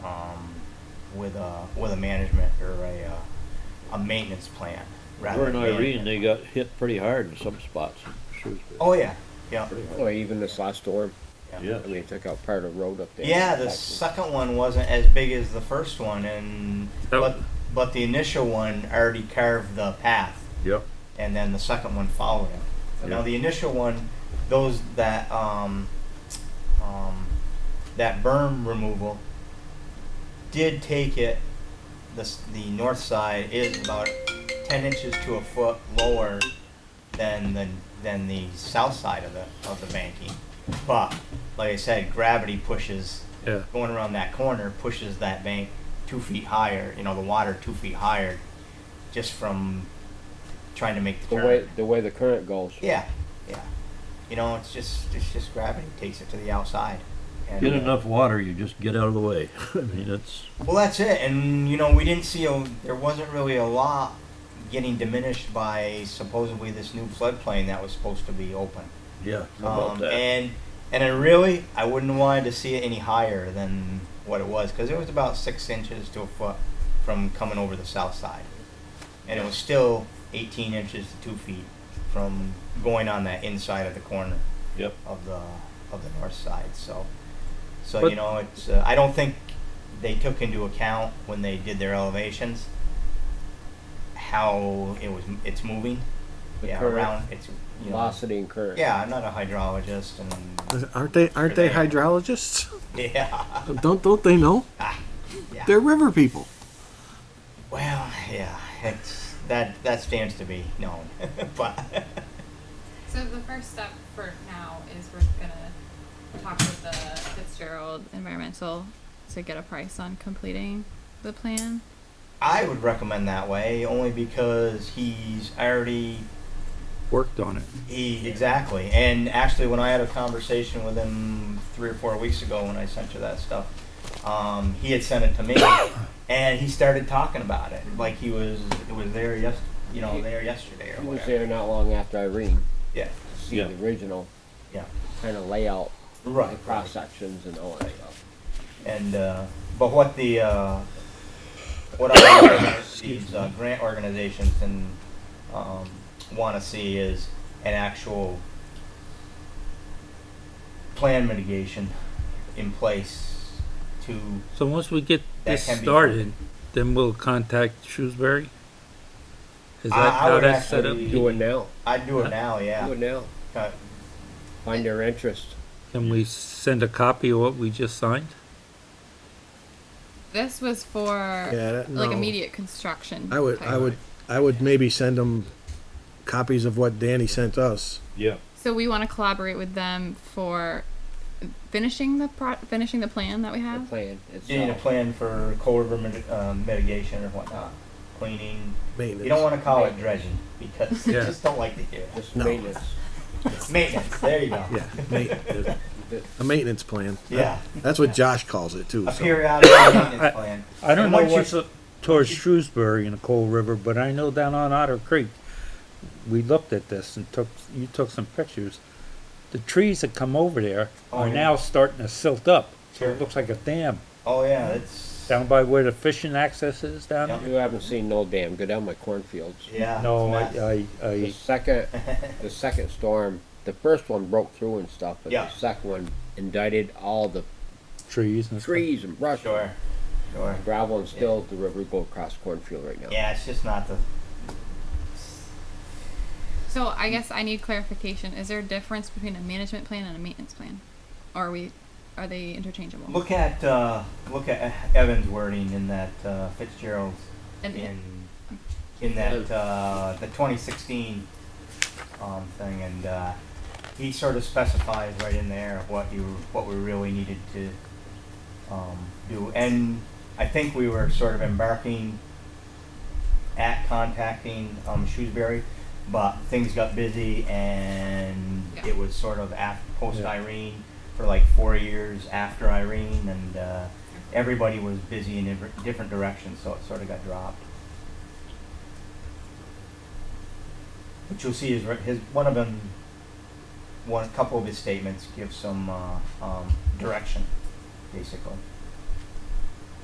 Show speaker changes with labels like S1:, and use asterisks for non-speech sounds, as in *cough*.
S1: um, with a with a management or a uh, a maintenance plan rather.
S2: Over in
S1: than
S2: Irene,
S1: management.
S2: they got hit pretty hard in some spots. Shrewsbury.
S1: Oh yeah, yeah,
S2: Pretty hard.
S3: Or even this last storm,
S2: Yeah.
S3: I mean, it took out part of the road up there.
S1: yeah. The second one wasn't as big as the first one, and
S4: That-
S1: but but the initial one already carved the path.
S4: Yep.
S1: and then the second one followed him. So Now
S4: Yeah.
S1: the initial one, those that um, um, that berm removal did take it. The s- the north side is about ten inches to a foot lower than the than the south side of the of the banking. But like I said, gravity pushes
S4: Yeah.
S1: going around that corner pushes that bank two feet higher. You know, the water two feet higher, just from trying to make the
S3: The
S1: turn.
S3: way, the way the current goes.
S1: Yeah, yeah. You know, it's just it's just gravity takes it to the outside. And,
S2: Get
S1: uh,
S2: enough water, you just get out of the way. *laughs* I mean, it's,
S1: Well, that's it. And you know, we didn't see a there wasn't really a lot getting diminished by supposedly this new floodplain that was supposed to be open.
S2: yeah, about
S1: Um,
S2: that.
S1: And and I really I wouldn't want to see it any higher than what it was because it was about six inches to a foot from coming over the south side, and it was still 18 inches to two feet from going on that inside of the corner
S2: Yep.
S1: of the of the north side. So so
S4: But-
S1: you know it's uh, I don't think they took into account when they did their elevations how it was it's moving.
S3: The
S1: yeah,
S3: current
S1: around it's you know,
S3: Velocity and current.
S1: yeah, I'm not a hydrologist, and
S5: Aren't they aren't they
S1: Right.
S5: hydrologists?
S1: yeah,
S5: *laughs*
S1: Ah,
S5: Don't don't they know?
S1: yeah.
S5: They're river people.
S1: well, yeah, it's that that stands to be known, *laughs* but
S6: So the first step for now is we're gonna talk with the Fitzgerald Environmental to get a price on completing the plan.
S1: I would recommend that way only because he's already
S5: Worked on it.
S1: He, exactly. And actually, when I had a conversation with him three or four weeks ago when I sent you that stuff, um, he had sent it to me, *coughs* and he started talking about it like he was it was there yes you know there yesterday or
S3: He was
S1: whatever.
S3: there not long after Irene,
S1: Yeah,
S3: to see
S2: Yeah.
S3: the original
S1: yeah,
S3: kind of layout, the
S1: right.
S3: cross sections and all that stuff.
S1: And uh, but what the uh, what I these uh, grant organizations and um, want to see is an actual plan mitigation in place to
S4: So once we get
S1: That
S4: this
S1: can be-
S4: started, then we'll contact Shrewsbury? Is
S1: I-
S4: that
S1: I
S4: how
S1: would
S4: that's set up?
S1: actually-
S3: Do it now,
S1: I'd do it now, yeah.
S3: do it now,
S1: Uh,
S3: find their interest.
S4: Can we send a copy of what we just signed?
S6: This was for
S5: Yeah, that-
S6: like
S5: no.
S6: immediate construction.
S5: I would
S6: type.
S5: I would I would maybe send them copies of what Danny sent us.
S2: Yeah,
S6: So we want to collaborate with them for finishing the pro- finishing the plan that we
S3: The
S6: have.
S3: plan
S1: Getting a
S3: itself.
S1: plan for cold river mit- uh, mitigation or whatnot, cleaning.
S5: Maintenance.
S1: You don't wanna call it dredging,
S5: *laughs*
S1: because you
S4: Yeah.
S1: just don't like to hear it.
S3: Just
S5: No.
S3: maintenance.
S1: Maintenance, there you go.
S5: Yeah,
S1: *laughs*
S5: ma- a maintenance plan.
S1: Yeah,
S5: That's what Josh calls it too.
S1: a
S5: so.
S1: periodic maintenance plan.
S2: I don't
S1: And
S2: know
S1: once you-
S2: what's up towards Shrewsbury and the Cold River, but I know down on Otter Creek, we looked at this and took, you took some pictures. The trees that come over there
S1: Oh,
S2: are
S1: yeah.
S2: now starting to silt up, so
S1: Sure.
S2: it looks like a dam.
S1: Oh, yeah, it's,
S2: Down by where the fishing access is down
S1: Yeah.
S2: there?
S3: You haven't seen no dam, go down by cornfields.
S1: yeah. it's
S2: No,
S1: mess.
S2: I, I,
S3: The
S1: *laughs*
S2: I,
S3: second, the second storm, the first one broke through and stuff, but
S1: Yeah.
S3: the second one indicted all the
S2: trees and.
S3: trees and brush.
S1: Sure, sure.
S3: Gravel and still the river go across cornfield right now.
S1: Yeah, it's just not the,
S6: So I guess I need clarification. Is there a difference between a management plan and a maintenance plan, or are we are they interchangeable?
S1: look at, uh, look at Evan's wording in that uh, Fitzgerald's
S6: and
S1: in in that uh, the 2016 um, thing, and uh, he sort of specifies right in there what you what we really needed to um, do, and I think we were sort of embarking at contacting um, Shrewsbury, but things got busy, and
S6: Yeah.
S1: it was sort of after post
S2: Yeah.
S1: Irene for like four years after Irene, and uh, everybody was busy in different- different directions, so it sort of got dropped. What you'll see is right- his one of them, one couple of his statements give some uh, um, direction, basically.